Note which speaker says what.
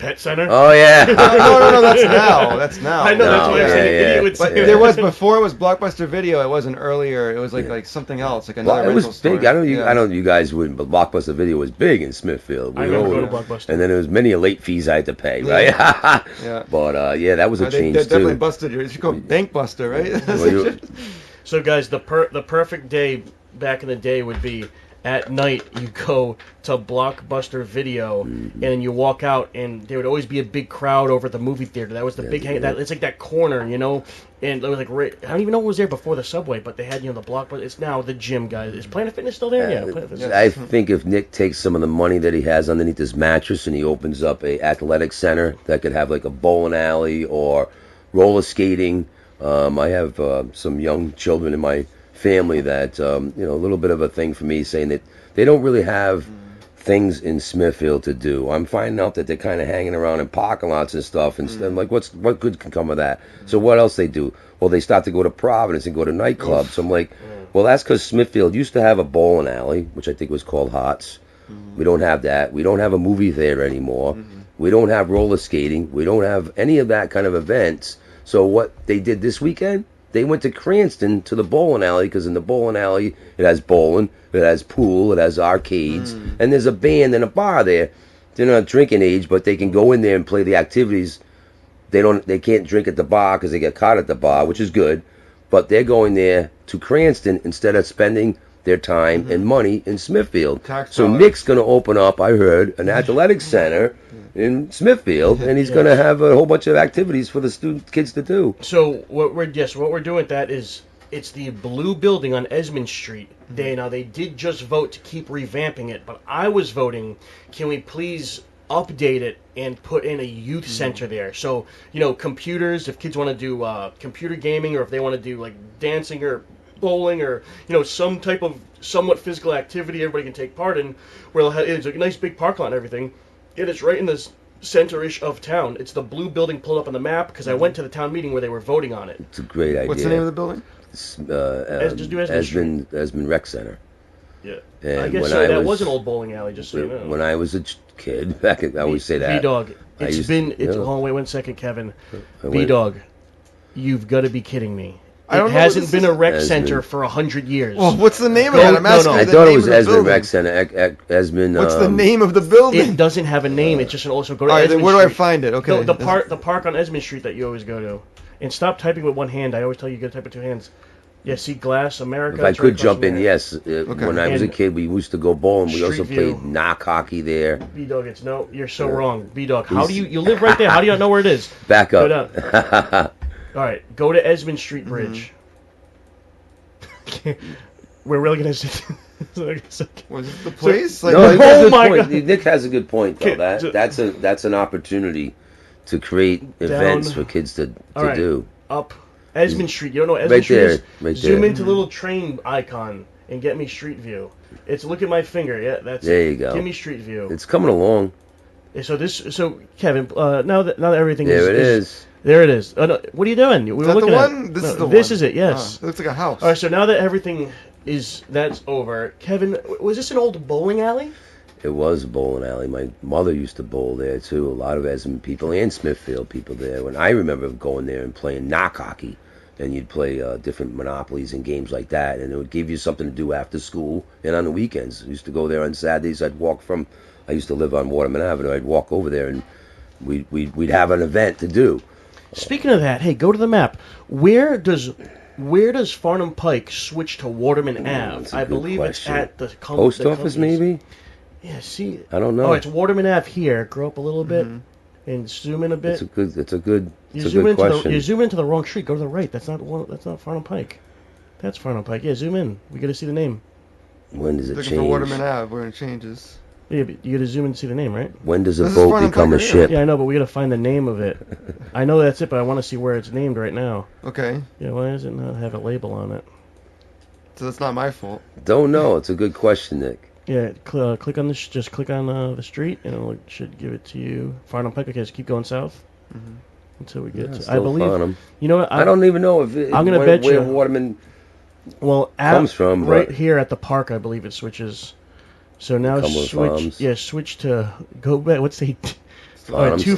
Speaker 1: Pet Center.
Speaker 2: Oh yeah.
Speaker 3: no, no, no, that's now. That's now.
Speaker 1: I know that's
Speaker 2: No,
Speaker 1: why I'm
Speaker 2: yeah,
Speaker 1: saying
Speaker 2: yeah,
Speaker 1: idiot would
Speaker 3: But
Speaker 1: say
Speaker 3: there was before it was Blockbuster Video. It wasn't earlier. It was like like something else, like another
Speaker 2: Well, it
Speaker 3: rental
Speaker 2: was
Speaker 3: store.
Speaker 2: big. I know you.
Speaker 3: Yeah.
Speaker 2: I know you guys wouldn't, but Blockbuster Video was big in Smithfield.
Speaker 1: I
Speaker 2: We
Speaker 1: remember
Speaker 2: owned
Speaker 1: going to
Speaker 2: it.
Speaker 1: Blockbuster.
Speaker 2: And then there was many late fees I had to pay,
Speaker 3: Yeah.
Speaker 2: right?
Speaker 3: Yeah.
Speaker 2: But uh, yeah, that was a
Speaker 3: Uh, they,
Speaker 2: change
Speaker 3: they
Speaker 2: too.
Speaker 3: definitely busted you. You should call it Bank Buster, right?
Speaker 2: Well, you-
Speaker 1: So guys, the per- the perfect day back in the day would be at night you go to Blockbuster Video
Speaker 2: Mm-hmm.
Speaker 1: and then you walk out and there would always be a big crowd over at the movie theater. That was the big hang that it's like that corner, you know. And it was like right, I don't even know what was there before the subway, but they had you know the Blockbuster. It's now the gym, guys. Is Planet Fitness still there? Yeah, Planet Fitness.
Speaker 2: I think if Nick takes some of the money that he has underneath his mattress and he opens up a athletic center that could have like a bowling alley or roller skating. Um, I have uh, some young children in my family that um, you know a little bit of a thing for me saying that they don't really have
Speaker 3: Mm.
Speaker 2: things in Smithfield to do. I'm finding out that they're kind of hanging around in parking lots and stuff. And I'm like, what's what good can come of that? So what else they do? Well, they start to go to Providence and go to nightclubs. So I'm like, well, that's because Smithfield used to have a bowling alley, which I think was called Hots. We don't have that. We don't have a movie theater anymore. We don't have roller skating. We don't have any of that kind of events. So what they did this weekend, they went to Cranston to the bowling alley because in the bowling alley it has bowling, it has pool, it has arcades,
Speaker 3: Mm.
Speaker 2: and there's a band and a bar there. They're not drinking age, but they can go in there and play the activities. They don't, they can't drink at the bar because they get caught at the bar, which is good. But they're going there to Cranston instead of spending their time and money in Smithfield.
Speaker 3: Mm-hmm. Tax
Speaker 2: so
Speaker 3: dollars.
Speaker 2: Nick's going to open up, I heard, an athletic center in Smithfield, and he's going to have a whole bunch of activities for the student kids to do.
Speaker 1: So what we're yes, what we're doing with that is it's the blue building on Esmond Street. They now they did just vote to keep revamping it, but I was voting. Can we please update it and put in a youth center there? So you know, computers. If kids want to do uh, computer gaming, or if they want to do like dancing or bowling or you know some type of somewhat physical activity everybody can take part in where they'll have- it's a nice big park lot and everything it is right in the s- center-ish of town it's the blue building pulled up on the map because
Speaker 3: Mm-hmm.
Speaker 1: i went to the town meeting where they were voting on it
Speaker 2: It's a great idea.
Speaker 3: What's the name of the building?
Speaker 2: uh, uh,
Speaker 1: Es- just do Esmond
Speaker 2: Esmond, Esmond Rec Center.
Speaker 1: yeah
Speaker 2: And
Speaker 1: i guess
Speaker 2: when
Speaker 1: so
Speaker 2: I
Speaker 1: that
Speaker 2: was-
Speaker 1: was an old bowling alley just so you know
Speaker 2: When I was a ch- kid, back in- I always say that.
Speaker 1: b-dog
Speaker 2: I
Speaker 1: it's
Speaker 2: used-
Speaker 1: been it's a
Speaker 2: yeah.
Speaker 1: long way one second kevin
Speaker 2: went-
Speaker 1: b-dog you've got to be kidding me
Speaker 3: I don't
Speaker 1: it
Speaker 3: know what
Speaker 1: hasn't
Speaker 3: this
Speaker 1: been a
Speaker 3: is- Oh,
Speaker 1: rec
Speaker 2: Esmond.
Speaker 1: center for a hundred years
Speaker 3: Well, what's the name
Speaker 1: Go-
Speaker 3: of it? I'm
Speaker 1: no,
Speaker 3: asking
Speaker 1: no.
Speaker 3: you
Speaker 2: I
Speaker 3: the
Speaker 2: thought it
Speaker 3: name
Speaker 2: was
Speaker 3: of the
Speaker 2: Esmond
Speaker 3: building.
Speaker 2: Rec Center. Ec- Ec- Esmond.
Speaker 3: What's the
Speaker 2: um,
Speaker 3: name of the building?
Speaker 1: it doesn't have a name. It's just an also go to.
Speaker 3: All right, then
Speaker 1: Esmond
Speaker 3: where do I
Speaker 1: Street.
Speaker 3: find it? Okay.
Speaker 1: No, the park, the park on Esmond Street that you always go to, and stop typing with one hand. I always tell you, you got to type with two hands. Yeah, see, glass America.
Speaker 2: If I
Speaker 1: it's right
Speaker 2: could
Speaker 1: across
Speaker 2: jump
Speaker 1: from
Speaker 2: in,
Speaker 1: there.
Speaker 2: yes. Uh, When I was a
Speaker 1: And-
Speaker 2: kid, we used to go bowling. We
Speaker 1: Street
Speaker 2: also
Speaker 1: View.
Speaker 2: played knock hockey there.
Speaker 1: B dog, it's no. You're so wrong, B dog. How do you? You live right there. How do you not know where it is?
Speaker 2: Back
Speaker 1: Go
Speaker 2: up.
Speaker 1: down. All right, go to Esmond Street
Speaker 2: Mm-hmm.
Speaker 1: Bridge. We're really gonna sit.
Speaker 3: Was it the place? Like,
Speaker 2: No, it's a
Speaker 1: Oh
Speaker 2: good
Speaker 1: my
Speaker 2: point.
Speaker 1: God.
Speaker 2: Nick has a good point though.
Speaker 1: Okay, so-
Speaker 2: That that's a that's an opportunity to create events for kids to, to
Speaker 1: All right.
Speaker 2: do.
Speaker 1: up Esmond Street. You don't know what Esmond
Speaker 2: Right
Speaker 1: Street
Speaker 2: there,
Speaker 1: is?
Speaker 2: right
Speaker 1: Zoom
Speaker 2: there.
Speaker 1: into the little train icon and get me Street View. It's look at my finger. Yeah, that's
Speaker 2: There
Speaker 1: it.
Speaker 2: you go.
Speaker 1: Give me Street View.
Speaker 2: It's coming along.
Speaker 1: And so this, so Kevin, uh, now that now that everything is,
Speaker 2: There it is.
Speaker 1: there it is. Oh, no, what are you doing? We were
Speaker 3: is that the
Speaker 1: looking at-
Speaker 3: one? This
Speaker 1: no,
Speaker 3: is the one. Ah.
Speaker 1: This is it. Yes.
Speaker 3: Huh, looks like a house.
Speaker 1: All right. So now that everything is that's over, Kevin, w- was this an old bowling alley?
Speaker 2: It was a bowling alley. My mother used to bowl there too. A lot of Esmond people and Smithfield people there. When I remember going there and playing knock hockey, and you'd play uh, different monopolies and games like that, and it would give you something to do after school and on the weekends. I used to go there on Saturdays. I'd walk from. I used to live on Waterman Avenue. I'd walk over there and we'd we'd, we'd have an event to do.
Speaker 1: Speaking of that, hey, go to the map. Where does where does Farnham Pike switch to Waterman Ave?
Speaker 2: Hmm, that's a
Speaker 1: I
Speaker 2: good
Speaker 1: believe
Speaker 2: question.
Speaker 1: it's at Oh, the com-
Speaker 2: Post
Speaker 1: the
Speaker 2: office,
Speaker 1: companies.
Speaker 2: maybe.
Speaker 1: Yeah. See.
Speaker 2: I don't know.
Speaker 1: Oh, it's Waterman Ave here. Grow up a little bit
Speaker 3: Mm-hmm.
Speaker 1: and zoom in a bit.
Speaker 2: It's a good. It's a good. It's
Speaker 1: You
Speaker 2: a
Speaker 1: zoom
Speaker 2: good
Speaker 1: into
Speaker 2: question.
Speaker 1: the you zoom into the wrong street. Go to the right. That's not one, that's not Farnham Pike. That's Farnham Pike. Yeah, zoom in. We gotta see the name.
Speaker 2: when does it
Speaker 3: Looking for
Speaker 2: change?
Speaker 3: Waterman Ave, where it changes.
Speaker 1: Yeah, but you gotta zoom in to see the name, right?
Speaker 2: When does a
Speaker 3: This is
Speaker 2: boat
Speaker 3: Farnham
Speaker 2: become a
Speaker 3: Pike right
Speaker 2: ship?
Speaker 1: Yeah, I know, but we gotta find the name of it. I know that's it, but I want to see where it's named right now.
Speaker 3: Okay,
Speaker 1: Yeah, why does it not have a label on it?
Speaker 3: so that's not my fault.
Speaker 2: Don't know. It's a good question, Nick.
Speaker 1: Yeah, cl- uh, click on this. Just click on uh, the street, and it should give it to you. Farnham Pike. Okay, just keep going south until we get.
Speaker 2: Yeah,
Speaker 1: to, I
Speaker 2: still
Speaker 1: believe.
Speaker 2: Farnham.
Speaker 1: You know what?
Speaker 2: I don't even know if it,
Speaker 1: I'm gonna
Speaker 2: where,
Speaker 1: bet
Speaker 2: where
Speaker 1: you-
Speaker 2: Waterman.
Speaker 1: Well, at,
Speaker 2: comes from,
Speaker 1: right
Speaker 2: but-
Speaker 1: here at the park, I believe it switches. So now
Speaker 2: Cumberland
Speaker 1: switch,
Speaker 2: Farms.
Speaker 1: yeah, switch to go back. What's the
Speaker 2: on. I'm
Speaker 1: two